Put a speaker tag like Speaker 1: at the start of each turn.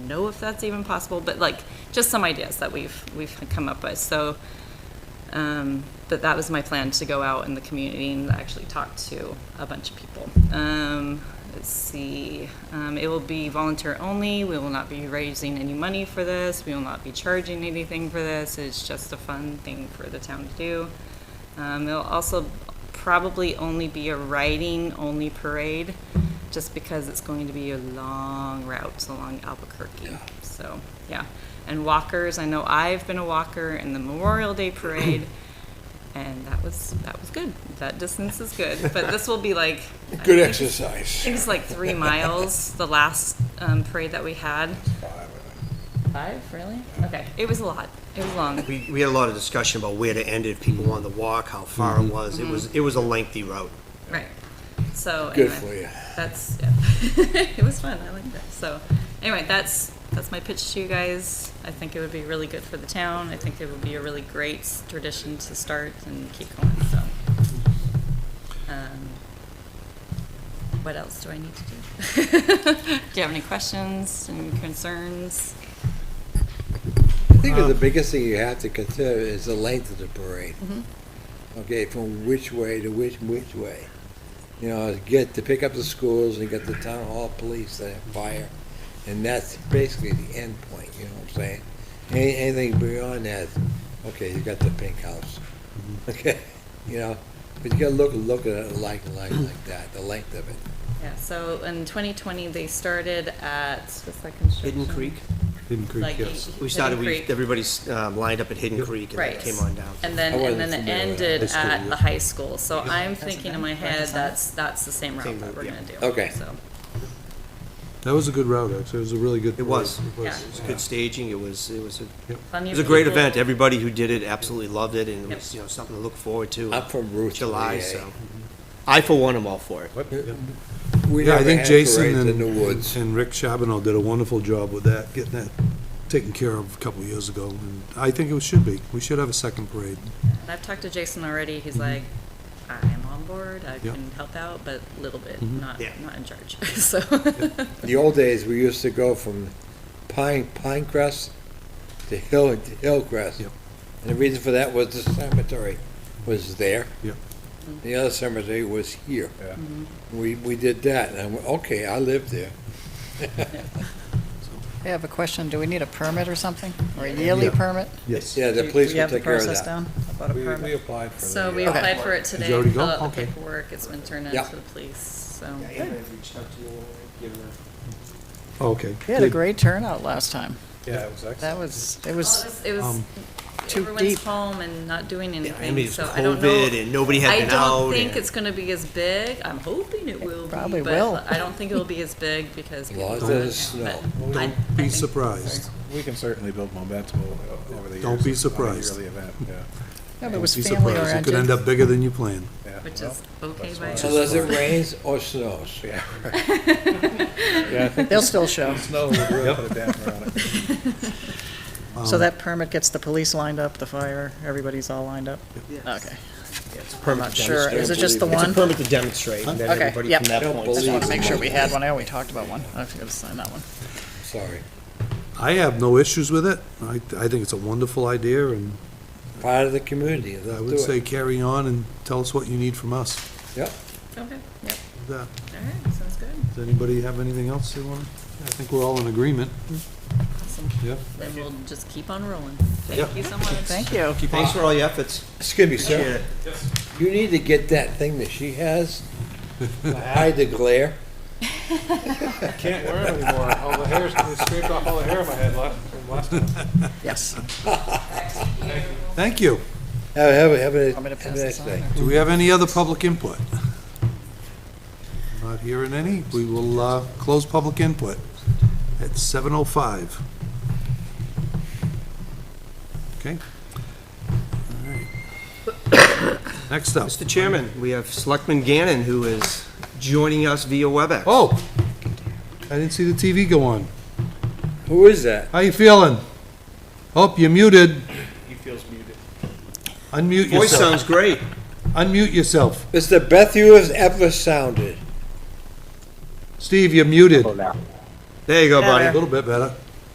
Speaker 1: know if that's even possible, but like, just some ideas that we've, we've come up with, so. Um, but that was my plan to go out in the community and actually talk to a bunch of people. Um, let's see. Um, it will be volunteer only. We will not be raising any money for this. We will not be charging anything for this. It's just a fun thing for the town to do. Um, it'll also probably only be a riding only parade just because it's going to be a long route along Albuquerque. So, yeah. And walkers, I know I've been a walker in the Memorial Day parade. And that was that was good. That distance is good, but this will be like I
Speaker 2: Good
Speaker 1: think it's- I
Speaker 2: exercise.
Speaker 1: think it's like three miles, the last um, parade that we had. Five, really? Okay, it was a lot. It was long.
Speaker 3: We, we had a lot of discussion about where to end it, if people wanted to walk, how far
Speaker 1: Mm-hmm.
Speaker 3: it was. It was, it was a lengthy route.
Speaker 1: Right. So
Speaker 2: Good
Speaker 1: anyway,
Speaker 2: for you.
Speaker 1: That's yeah. it was fun. I liked that. So anyway, that's that's my pitch to you guys. I think it would be really good for the town. I think it would be a really great s- tradition to start and keep going. So. Um, what else do I need to do? do you have any questions and concerns?
Speaker 4: I think the biggest thing you have to consider is the length of the parade. Okay, from which way to which, which way. You know, get to pick up the schools and get the town hall police and fire. And that's basically the end point, you know what I'm saying? Any- Anything beyond that, okay, you got the pink house. Okay, you know, but you gotta look, look at it like, like, like that, the length of it.
Speaker 1: Yeah, so in 2020, they started at, what's that construction?
Speaker 3: Hidden Creek,
Speaker 5: Hidden Creek,
Speaker 1: Like,
Speaker 5: yes.
Speaker 1: Hidden
Speaker 3: we started, we,
Speaker 1: Creek.
Speaker 3: everybody's um, lined up at Hidden Creek and
Speaker 1: Right.
Speaker 3: then came on down.
Speaker 1: And then,
Speaker 4: I
Speaker 1: and
Speaker 4: wasn't
Speaker 1: then it
Speaker 4: familiar with that.
Speaker 1: ended
Speaker 5: High
Speaker 1: at
Speaker 5: school, yeah.
Speaker 1: the high school, so I'm thinking in my head, that's, that's the same route
Speaker 3: Same
Speaker 1: that
Speaker 3: route,
Speaker 1: we're
Speaker 3: yeah.
Speaker 1: gonna do.
Speaker 4: Okay.
Speaker 1: So,
Speaker 5: That was a good route, actually. It was a really good.
Speaker 3: It was.
Speaker 5: parade.
Speaker 1: Yeah.
Speaker 3: It was good staging, it was, it was, a-
Speaker 1: plenty
Speaker 3: it
Speaker 1: of
Speaker 3: was a great
Speaker 1: people-
Speaker 3: event. Everybody who did it absolutely loved it and it
Speaker 1: Yep.
Speaker 3: was, you know, something to look forward to.
Speaker 4: I'm from
Speaker 3: in
Speaker 4: Route
Speaker 3: July,
Speaker 4: 38.
Speaker 3: so. I for one am all for it.
Speaker 4: We
Speaker 5: Yeah, I
Speaker 4: never
Speaker 5: think
Speaker 4: had
Speaker 5: Jason
Speaker 4: parades
Speaker 5: and,
Speaker 4: in the woods.
Speaker 5: and Rick Chabanel did a wonderful job with that, getting that taken care of a couple of years ago. And I think it should be. We should have a second parade.
Speaker 1: And I've talked to Jason already, he's like, I'm on board, I
Speaker 5: Yeah.
Speaker 1: can help out, but a little bit, not,
Speaker 3: Yeah.
Speaker 1: not in charge, so.
Speaker 4: The old days, we used to go from Pine, Pinecrest to Hill, to Hillcrest.
Speaker 5: Yep.
Speaker 4: And the reason for that was the cemetery was there.
Speaker 5: Yep.
Speaker 4: The other cemetery was here.
Speaker 6: Mm-hmm.
Speaker 4: We, we did that, and I went, okay, I lived there.
Speaker 6: I have a question. Do we need a permit or something? Or a yearly
Speaker 5: Yeah.
Speaker 6: permit?
Speaker 5: Yes.
Speaker 4: Yeah, the
Speaker 6: Do-
Speaker 4: police
Speaker 6: Do you
Speaker 4: would
Speaker 6: have the
Speaker 4: take care of
Speaker 6: process
Speaker 4: that.
Speaker 6: down about a permit?
Speaker 2: applied for
Speaker 1: So we
Speaker 6: Okay.
Speaker 1: applied for uh, it today,
Speaker 5: already
Speaker 1: filled
Speaker 5: go?
Speaker 1: out the
Speaker 5: Okay.
Speaker 1: paperwork, it's been turned in
Speaker 4: Yeah.
Speaker 1: to the police, so.
Speaker 3: reached out to you,
Speaker 5: Okay.
Speaker 6: We had a great turnout last time.
Speaker 2: Yeah, it was excellent.
Speaker 6: That was, it
Speaker 1: Well,
Speaker 6: was,
Speaker 1: It was,
Speaker 5: um,
Speaker 1: it was,
Speaker 6: too
Speaker 1: everyone's
Speaker 6: deep.
Speaker 1: home and not doing
Speaker 3: I mean,
Speaker 1: anything,
Speaker 3: it's
Speaker 1: so I don't know.
Speaker 3: COVID and nobody had
Speaker 1: I
Speaker 3: been out.
Speaker 1: don't think
Speaker 3: and-
Speaker 1: it's gonna be as big. I'm hoping it will
Speaker 6: probably
Speaker 1: be,
Speaker 6: will.
Speaker 1: but I don't think it'll be as big because. people
Speaker 4: Laws
Speaker 1: don't-
Speaker 4: of snow.
Speaker 1: but I- I
Speaker 5: Be
Speaker 1: think-
Speaker 5: surprised.
Speaker 2: We can certainly build momentum o- over the years.
Speaker 5: Don't be
Speaker 2: on a
Speaker 5: surprised.
Speaker 2: yearly event, yeah,
Speaker 6: yeah, but it was
Speaker 5: Be
Speaker 6: family
Speaker 5: surprised. It could end
Speaker 6: oriented.
Speaker 5: up bigger than you planned.
Speaker 2: yeah.
Speaker 1: Which
Speaker 2: Well,
Speaker 1: is okay
Speaker 2: that's
Speaker 1: by
Speaker 2: fine.
Speaker 1: us.
Speaker 4: Unless it rains or snows.
Speaker 2: Yeah.
Speaker 6: They'll still show.
Speaker 2: Snow would really put a damper on it.
Speaker 6: So that permit gets the police lined up, the fire, everybody's all lined up? Okay. I'm not sure. Is it just the
Speaker 3: It's a
Speaker 6: one?
Speaker 3: permit to demonstrate and then
Speaker 6: Okay,
Speaker 3: everybody
Speaker 6: yep.
Speaker 3: from that
Speaker 4: Don't
Speaker 3: point.
Speaker 6: I just
Speaker 4: believe
Speaker 6: want to make sure we
Speaker 4: it.
Speaker 6: had one. I know we talked about one. I forgot to sign that one.
Speaker 4: Sorry.
Speaker 5: I have no issues with it. I, I think it's a wonderful idea and
Speaker 4: Part of the community,
Speaker 5: I
Speaker 4: let's
Speaker 5: would
Speaker 4: do
Speaker 5: say
Speaker 4: it.
Speaker 5: carry on and tell us what you need from us.
Speaker 4: Yep.
Speaker 1: Okay, yep,
Speaker 5: That-
Speaker 1: all right, sounds good.
Speaker 5: Does anybody have anything else they want? I think we're all in agreement.
Speaker 1: Awesome.
Speaker 5: Yeah.
Speaker 1: Then we'll just keep on rolling.
Speaker 3: Yeah.
Speaker 1: Thank you so much.
Speaker 6: Thank you.
Speaker 3: Thanks for all your efforts.
Speaker 4: Excuse me,
Speaker 3: Appreciate
Speaker 4: sir.
Speaker 3: it.
Speaker 4: You need to get that thing that she has, to hide the glare.
Speaker 7: Can't wear it anymore. All the hair's, they scraped off all the hair on my head last, from last time.
Speaker 6: Yes.
Speaker 5: Thank you.
Speaker 4: Have, have, have a,
Speaker 6: I'm gonna pass
Speaker 4: have a
Speaker 6: this
Speaker 4: nice
Speaker 6: on.
Speaker 4: day.
Speaker 5: Do we have any other public input? Not hearing any. We will uh, close public input at 7:05. Okay? All right. Next up.
Speaker 3: Mr. Chairman, we have Selectman Gannon, who is joining us via WebEx.
Speaker 5: Oh, I didn't see the TV go on.
Speaker 4: Who is that?
Speaker 5: How you feeling? Oh, you're muted. He feels muted. Unmute
Speaker 3: Voice
Speaker 5: yourself.
Speaker 3: sounds great.
Speaker 5: Unmute yourself.
Speaker 4: It's the best you have ever sounded.
Speaker 5: Steve, you're muted.
Speaker 3: There you go,
Speaker 5: A
Speaker 3: buddy.
Speaker 5: little bit better.